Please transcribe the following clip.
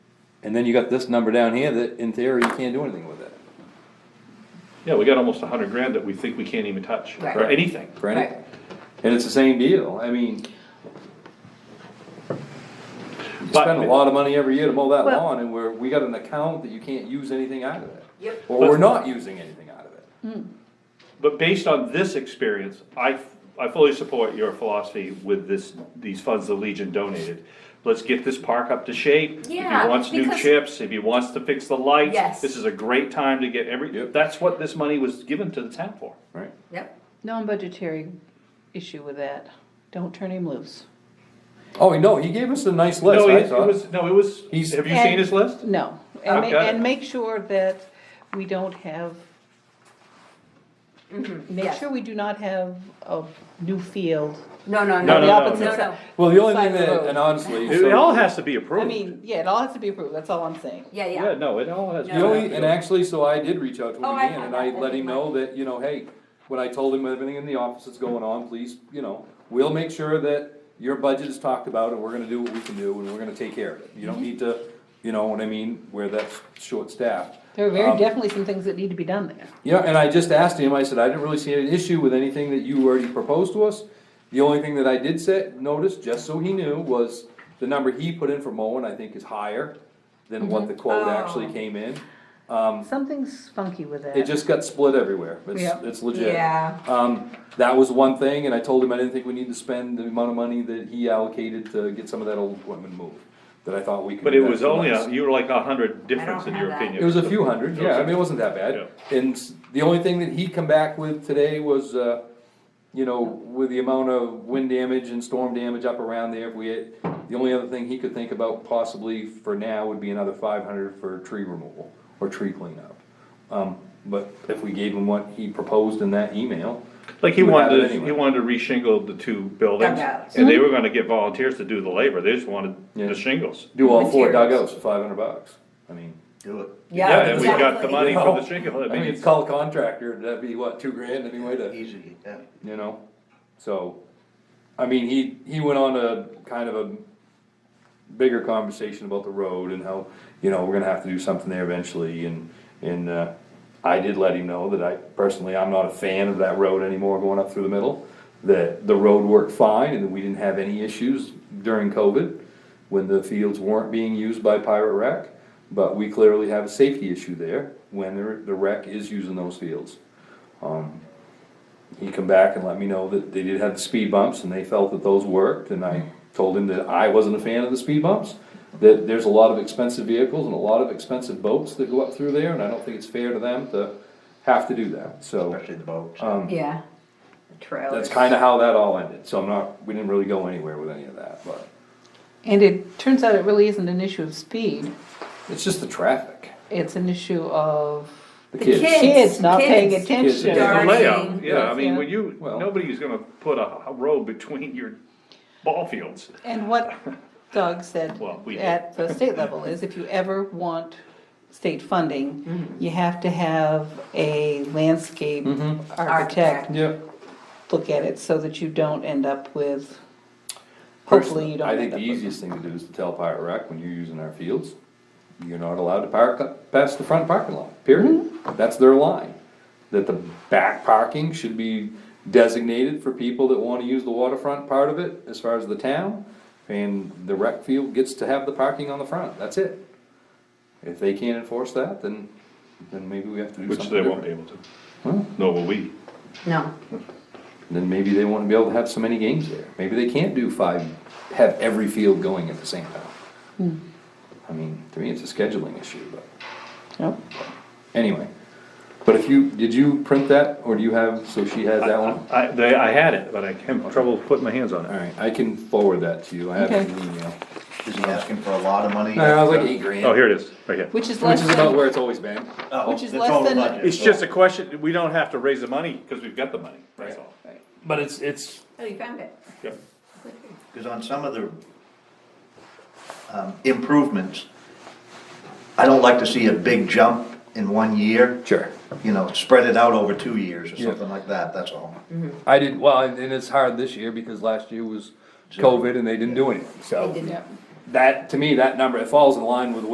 And then you got this number down here that in theory you can't do anything with it. Yeah, we got almost a hundred grand that we think we can't even touch, or Right. anything. Right? And it's the same deal, I mean. You But- spend a lot of money every year to mow that Well- lawn, and we're, we got an account that you can't use anything out of it. Yep. Or we're not using anything out of it. But based on this experience, I, I fully support your philosophy with this, these funds the Legion donated. Let's get this park up to shape. If Yeah, he wants new because- chips, if he wants to fix the lights. Yes. This is a great time to get every, Yep. that's what this money was given to the town for. Right. Yep. Non-budgetary issue with that. Don't turn him loose. Oh, no, he gave us a nice No, list, I it it thought. was, no, it was, He's- have you seen his list? No. And, ma- Okay. and make sure that we don't have, make yes. sure we do not have a new field. No, No, no, no, no, The no, opposite no, side. no. Well, the only thing Side of the that, road. and honestly, It so- all has to be I approved. mean, yeah, it all has to be approved, that's all I'm saying. Yeah, Yeah, yeah. no, it all has. to be The only, approved. and actually, so I did reach out to him Oh, I again, had and that. I I let think him mine- know that, you know, hey, when I told him everything in the office that's going on, please, you know, we'll make sure that your budget is talked about, and we're gonna do what we can do, and we're gonna take care of it. You Mhm. don't need to, you know what I mean, where that's short-staffed. There are very Um, definitely some things that need to be done there. Yeah, and I just asked him, I said, I didn't really see an issue with anything that you already proposed to us. The only thing that I did set, notice, just so he knew, was the number he put in for mowing, I think, is higher than what the quote actually Oh. came in. Something's funky with that. um, It just got split everywhere, it's, Yeah. it's legit. Yeah. Um, that was one thing, and I told him I didn't think we need to spend the amount of money that he allocated to get some of that old equipment moved, that I thought we could. But do it that was for only, less. a you were like a hundred difference in have your that. opinion. It was a few hundred, yeah, I mean, it wasn't that bad, and s- the only thing that he come back with today was, uh, you know, with the amount of wind damage and storm damage up around there, we had, the only other thing he could think about possibly for now would be another five hundred for tree removal, or tree cleanup. Um, but if we gave him what he proposed in that email, Like he You have wanted, it to- he anyway. wanted to reshingle the two buildings, Dugouts. and they were gonna get volunteers to do the labor, they just wanted Yeah. the shingles. do all four Materials. dugouts for five hundred bucks, I mean. Do it. Yeah, and we got the exactly. money You for know, the shingle, I I mean, mean, it's, call a contractor, that'd be what, two grand anyway to. Easy, yeah. you know? So, I mean, he, he went on a kind of a bigger conversation about the road and how, you know, we're gonna have to do something there eventually and, and, uh, I did let him know that I, personally, I'm not a fan of that road anymore going up through the middle. That the road worked fine and that we didn't have any issues during COVID when the fields weren't being used by Pirate Rec. But we clearly have a safety issue there when the, the rec is using those fields he come back and let me know that they did have the speed bumps and they felt that those worked, and I told him that I wasn't a fan of the speed bumps. That there's a lot of expensive vehicles and a lot of expensive boats that go up through there, and I don't think it's fair to them to have to do that, so. Especially the boats. Um, Yeah. Trailers. That's kinda how that all ended, so I'm not, we didn't really go anywhere with any of that, but And it turns out it really isn't an issue of speed, it's just the traffic, it's an issue of the The kids. kids. kids not paying kids. Kids, yeah. attention. the Darn layout, thing. yeah, I mean, Yeah. when you, Well- nobody's gonna put a a road between your ball fields. And what Doug said Well, we did. at the state level is if you ever want state funding, you have to have a landscape Mm-hmm. architect Architect. Yeah. look at it so that you don't end up with, hopefully you don't I end think up the with. easiest thing to do is to tell Pirate Rec, when you're using our fields, you're not allowed to park up past the front parking lot, period. Mm-hmm. That's their line. That the back parking should be designated for people that wanna use the waterfront part of it, as far as the town. And the rec field gets to have the parking on the front, that's it. If they can't enforce that, then, then maybe we have to do Which something they won't be different. able to, nor will we. No. Then maybe they won't be able to have so many games there. Maybe they can't do five, have every field going at the same time. Hmm. I mean, to me, it's a scheduling issue, but Yep. anyway. But if you, did you print that, or do you have, so she has that one? I, they, I had it, but I had trouble putting my hands on it. Alright, I can forward that to you, I have Okay. an email. Is he asking for a lot of money? No, I was like eight grand, Oh, which here it is, right here. Which is less is about than, where it's always been. Oh, Which is the less total than- budget. It's just a question, we don't have to raise the money, cause we've got the money, that's all. But it's, it's. Oh, you found it. Yep. Because on some of the um, improvements, I don't like to see a big jump in one year. Sure. You know, spread it out over two years or Yeah. something like that, that's all. I did, well, and and it's hard this year, because last year was COVID and they didn't do anything, so. They didn't. That, to me, that number, it falls in line with